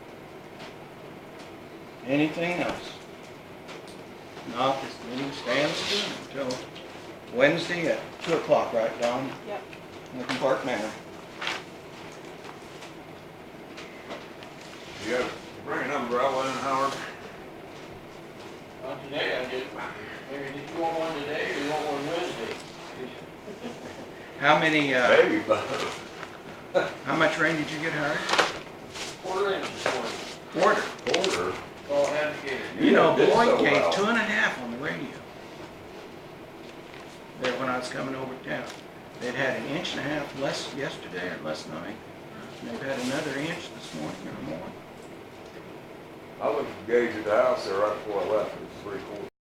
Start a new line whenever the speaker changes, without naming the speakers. Anything else? Not, this meeting stands adjourned until Wednesday at two o'clock, right down
Yep.
in the Park Manor.
You got, bring an umbrella in, Howard.
Not today, I did. Maybe did you want one today or you want one Wednesday?
How many, uh,
Baby bug.
how much rain did you get, Howard?
Quarter inch this morning.
Quarter.
Order.
All had to get.
You know,
did so
Boyd gave
well.
two and a half on the radio. There when I was coming over town. They'd had an inch and a half less yesterday or last night. And they've had another inch this morning or more.
I looked at the gauge at the house there right before I left, it was three quarters.